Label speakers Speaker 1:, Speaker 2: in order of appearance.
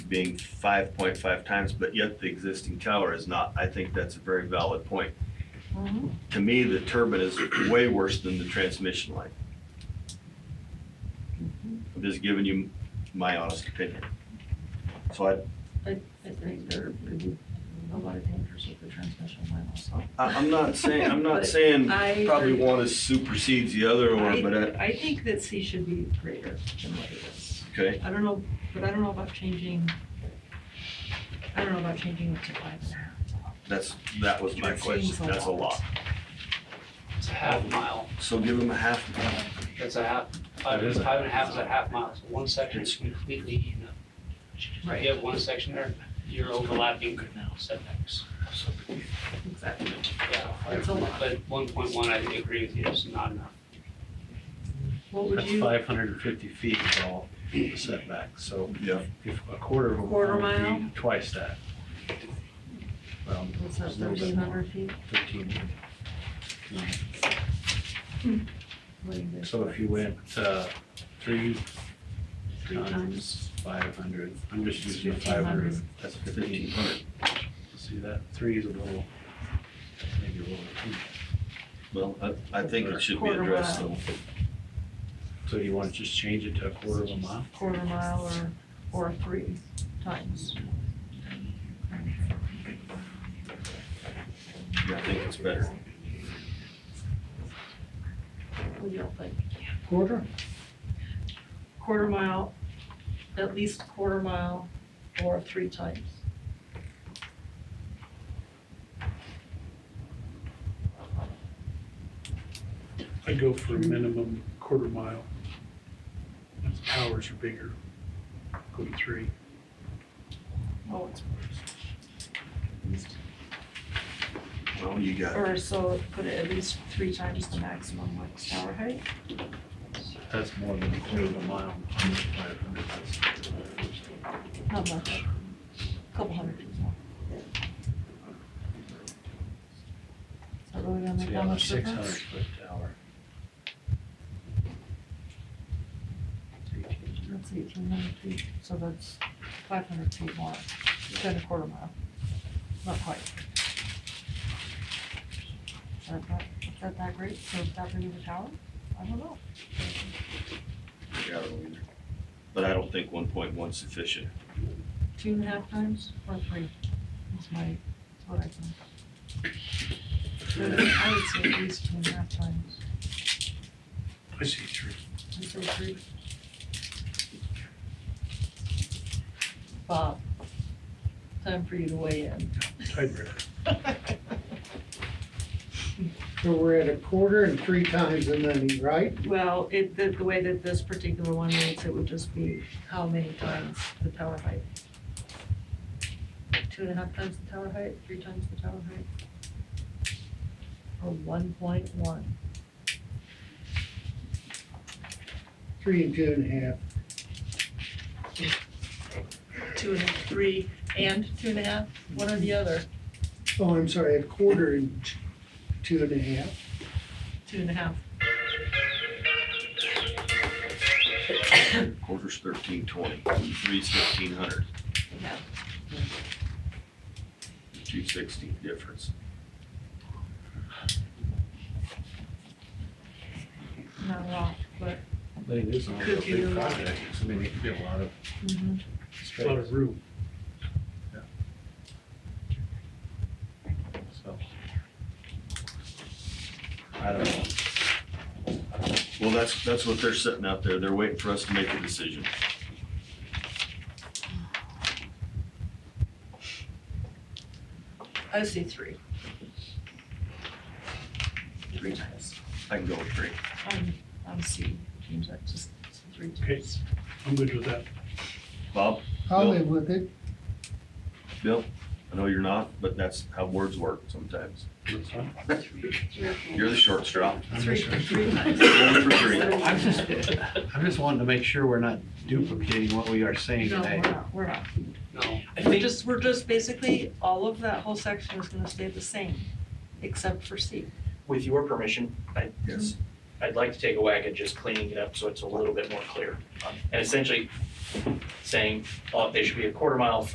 Speaker 1: being five point five times, but yet the existing tower is not. I think that's a very valid point.
Speaker 2: Mm-hmm.
Speaker 1: To me, the turbine is way worse than the transmission line. I'm just giving you my honest opinion. So I,
Speaker 2: I, I think there would be a lot of dangers with the transmission line also.
Speaker 1: I- I'm not saying, I'm not saying
Speaker 2: I
Speaker 1: probably
Speaker 2: agree.
Speaker 1: one is supersedes the other one, but I,
Speaker 2: I, I think that C should be greater than what it is.
Speaker 1: okay.
Speaker 2: I don't know, but I don't know about changing, I don't know about changing it to five and a half.
Speaker 1: That's, that was my
Speaker 2: It seems
Speaker 1: question,
Speaker 2: a
Speaker 1: that's a lot.
Speaker 2: lot.
Speaker 3: It's a half mile.
Speaker 1: So give them a half mile.
Speaker 3: That's a half, five,
Speaker 4: That is a-
Speaker 3: five and a half is a half mile. So one section is completely eaten up. If
Speaker 2: Right.
Speaker 3: you have one section there, you're overlapping setbacks.
Speaker 2: Exactly.
Speaker 3: Yeah.
Speaker 2: That's a lot.
Speaker 3: But one point one, I agree with you, is not enough.
Speaker 2: What would
Speaker 4: That's
Speaker 2: you,
Speaker 4: five hundred and fifty feet is all the setback, so
Speaker 1: Yeah.
Speaker 4: if a quarter of a
Speaker 2: Quarter
Speaker 4: mile would
Speaker 2: mile?
Speaker 4: be twice that. Well,
Speaker 2: what's that,
Speaker 4: it's a little bit
Speaker 2: thirteen
Speaker 4: more,
Speaker 2: hundred feet?
Speaker 4: thirteen.
Speaker 2: What do you think?
Speaker 4: So if you went, uh, three
Speaker 2: Three
Speaker 4: times five hundred, I'm just using the
Speaker 2: Fifteen
Speaker 4: five hundred,
Speaker 2: hundred.
Speaker 4: that's fifteen hundred. See that, three is a little, maybe a little, too.
Speaker 1: Well, I, I think it should be
Speaker 2: Quarter
Speaker 1: addressed
Speaker 2: mile.
Speaker 1: though.
Speaker 4: so you wanna just change it to a quarter of a mile?
Speaker 2: Quarter mile or, or three times.
Speaker 1: I think it's better.
Speaker 2: What do y'all think?
Speaker 4: Quarter?
Speaker 2: Quarter mile, at least quarter mile or three times.
Speaker 5: I'd go for a minimum quarter mile. If the towers are bigger, go to three.
Speaker 2: Oh, it's
Speaker 1: Well, you got,
Speaker 2: Or so put it at least three times the maximum like tower height.
Speaker 4: That's more than a quarter of a mile, five hundred, that's.
Speaker 2: Not much. Couple hundred feet more. Is that really gonna make
Speaker 4: So you
Speaker 2: that
Speaker 4: have a
Speaker 2: much
Speaker 4: six hundred
Speaker 2: difference?
Speaker 4: foot tower.
Speaker 2: That's eighteen hundred feet, so that's five hundred feet more than a quarter mile. Not quite. Is that that, is that that great for that big of a tower? I don't know.
Speaker 1: I don't either. But I don't think one point one's sufficient.
Speaker 2: Two and a half times or three is my, is what I think. I would say at least two and a half times.
Speaker 5: I see three.
Speaker 2: I say three. Bob, time for you to weigh in.
Speaker 5: Tiebreaker.
Speaker 6: So we're at a quarter and three times the money, right?
Speaker 2: Well, it, the, the way that this particular one reads, it would just be how many times the tower height? Two and a half times the tower height, three times the tower height? Or one point one?
Speaker 6: Three and two and a half.
Speaker 2: Two and a three and two and a half, one or the other?
Speaker 6: Oh, I'm sorry, a quarter and t- two and a half.
Speaker 2: Two and a half.
Speaker 1: Quarter's thirteen twenty, three's fifteen hundred,
Speaker 2: Yeah.
Speaker 1: two sixty difference.
Speaker 2: Not a lot, but.
Speaker 4: But it is a
Speaker 2: Could be a
Speaker 4: big
Speaker 2: lot.
Speaker 4: project, I mean, it could be a lot of
Speaker 2: mm-hmm.
Speaker 5: A lot
Speaker 4: space,
Speaker 5: of room.
Speaker 4: so. I don't know.
Speaker 1: Well, that's, that's what they're sitting out there. They're waiting for us to make a decision.
Speaker 2: I see three. Three times.
Speaker 1: I can go with three.
Speaker 2: I'm, I'm C, James, I just, it's three
Speaker 5: Okay.
Speaker 2: times.
Speaker 5: I'm good with that.
Speaker 1: Bob,
Speaker 6: I'll
Speaker 1: Bill?
Speaker 6: live with it.
Speaker 1: Bill, I know you're not, but that's how words work sometimes. You're the short straw.
Speaker 4: I'm
Speaker 2: Three,
Speaker 4: just,
Speaker 2: three times.
Speaker 1: Going for three.
Speaker 4: I'm just, I'm just wanting to make sure we're not duplicating what we are saying
Speaker 2: No, we're
Speaker 4: today.
Speaker 2: not, we're not.
Speaker 3: No,
Speaker 2: We're just, we're just basically, all of that whole section is gonna stay the same, except for C.
Speaker 7: with your permission, I,
Speaker 1: Yes.
Speaker 7: I'd like to take a whack at just cleaning it up so it's a little bit more clear. And essentially, saying, oh, they should be a quarter mile